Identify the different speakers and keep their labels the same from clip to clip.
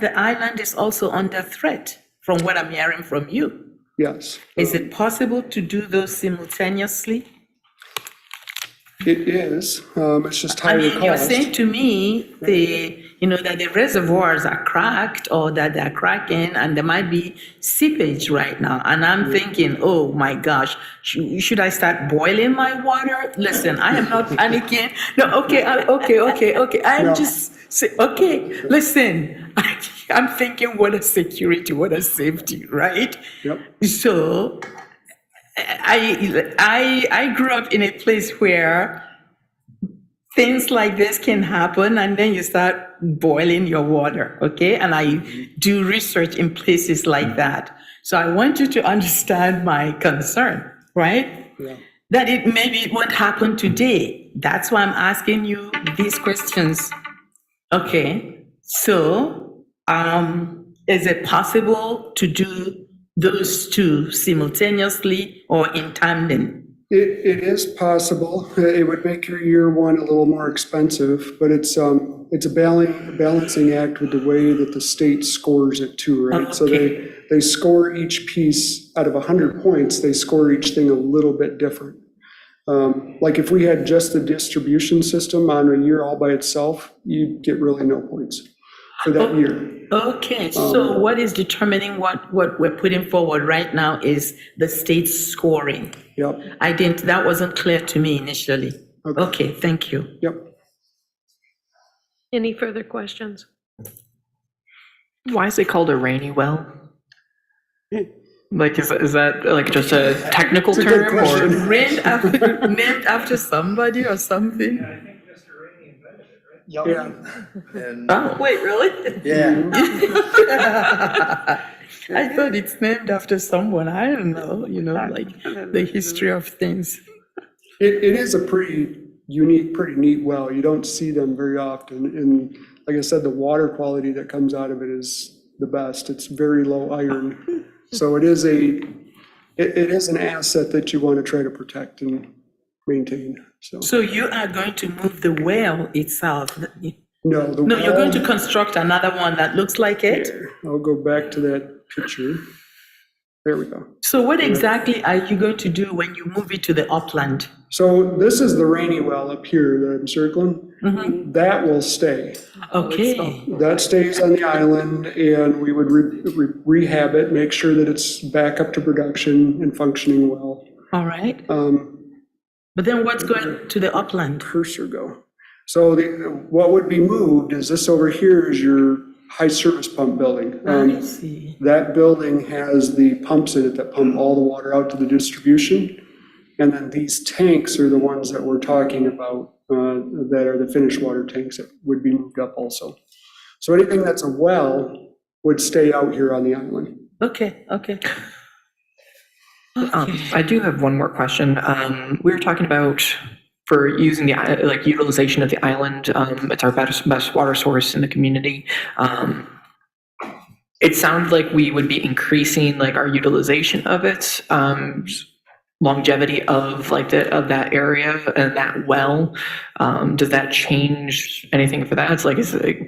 Speaker 1: the island is also under threat, from what I'm hearing from you.
Speaker 2: Yes.
Speaker 1: Is it possible to do those simultaneously?
Speaker 2: It is, um, it's just
Speaker 1: I
Speaker 2: higher
Speaker 1: mean, you're
Speaker 2: cost.
Speaker 1: saying to me, the, you know, that the reservoirs are cracked or that they're cracking and there might be seepage right now. And I'm thinking, oh my gosh, sh- should I start boiling my water? Listen, I am not panicking. No, okay, I- okay, okay, okay.
Speaker 2: No.
Speaker 1: I'm just, say- okay, listen. I'm thinking, what a security, what a safety, right?
Speaker 2: Yep.
Speaker 1: So I, I, I grew up in a place where things like this can happen and then you start boiling your water, okay? And I do research in places like that. So I want you to understand my concern, right?
Speaker 2: Yeah.
Speaker 1: That it maybe it won't happen today. That's why I'm asking you these questions. Okay, so, um, is it possible to do those two simultaneously or in tandem?
Speaker 2: It, it is possible. It would make your year one a little more expensive, but it's, um, it's a balancing, balancing act with the way that the state scores it too, right? So they, they score each piece out of 100 points, they score each thing a little bit different. Um, Like if we had just the distribution system on a year all by itself, you'd get really no points for that year.
Speaker 1: Okay, so what is determining what, what we're putting forward right now is the state scoring.
Speaker 2: Yep,
Speaker 1: I didn't, that wasn't clear to me initially. Okay, thank you.
Speaker 2: yep.
Speaker 3: Any further questions?
Speaker 4: Why is it called a rainy well? Like, is, is that like just a technical
Speaker 2: a good
Speaker 4: term or?
Speaker 2: question.
Speaker 1: Named after, named after somebody or something?
Speaker 2: Yeah.
Speaker 1: Oh, wait, really?
Speaker 5: Yeah,
Speaker 1: I thought it's named after someone. I don't know, you know, like the history of things.
Speaker 2: It, it is a pretty unique, pretty neat well. You don't see them very often. And like I said, the water quality that comes out of it is the best. It's very low iron. So it is a, it, it is an asset that you want to try to protect and maintain, so.
Speaker 1: So you are going to move the well itself.
Speaker 2: No, the
Speaker 1: No, you're going to
Speaker 2: well,
Speaker 1: construct another one that looks like it.
Speaker 2: I'll go back to that picture. There we go.
Speaker 1: So what exactly are you going to do when you move it to the upland?
Speaker 2: So this is the rainy well up here that I'm circling.
Speaker 1: Mm-hmm.
Speaker 2: That will stay.
Speaker 1: Okay,
Speaker 2: That stays on the island, and we would re- re- rehab it, make sure that it's back up to production and functioning well.
Speaker 1: all right.
Speaker 2: Um,
Speaker 1: But then what's going to the upland?
Speaker 2: Cursor go. So the- what would be moved is this over here is your high service pump building. Um,
Speaker 1: I see.
Speaker 2: That building has the pumps in it that pump all the water out to the distribution. And then these tanks are the ones that we're talking about, uh, that are the finished water tanks that would be moved up also. So anything that's a well would stay out here on the island.
Speaker 1: Okay, okay.
Speaker 4: Um, I do have one more question. Um, we were talking about for using the, i- like utilization of the island. Um, it's our best, best water source in the community. Um, it sounds like we would be increasing like our utilization of it, um, longevity of like the, of that area and that well. Um, does that change anything for that? It's like, is it,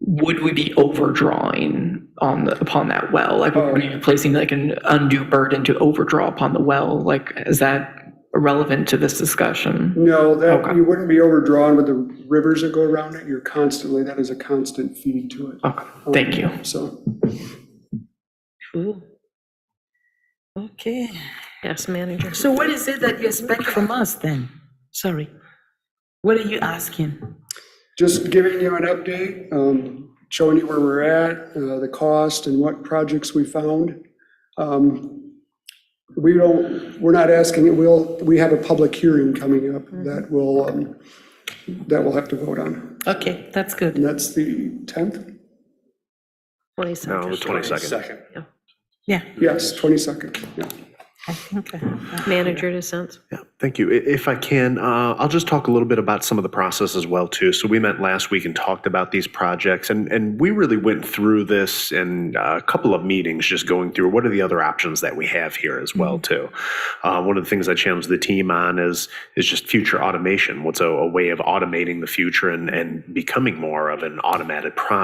Speaker 4: would we be overdrawing on the, upon that well? Like, would we be placing like an undue burden to overdraw upon the well? Like, is that relevant to this discussion?
Speaker 2: No, that,
Speaker 4: Okay.
Speaker 2: you wouldn't be overdrawn with the rivers that go around it. You're constantly, that is a constant feed to it,
Speaker 4: Okay, thank you.
Speaker 2: so.
Speaker 1: Cool. Okay,
Speaker 3: Yes, manager.
Speaker 1: so what is it that you expect from us then? Sorry. What are you asking?
Speaker 2: Just giving you an update, um, showing you where we're at, uh, the cost and what projects we found. Um, We don't, we're not asking, we'll, we have a public hearing coming up that will, um, that we'll have to vote on.
Speaker 1: Okay, that's good.
Speaker 2: And that's the 10th?
Speaker 3: Twenty-second.
Speaker 6: No, the 22nd.
Speaker 1: Yeah,
Speaker 2: Yes, 22nd, yeah.
Speaker 1: I think, I-
Speaker 3: Manager dissents.
Speaker 6: Yeah, thank you. I- If I can, uh, I'll just talk a little bit about some of the process as well, too. So we met last week and talked about these projects, and, and we really went through this in uh, a couple of meetings, just going through what are the other options that we have here as well, too. Uh, One of the things I challenged the team on is, is just future automation. What's a, a way of automating the future and, and becoming more of an automated process?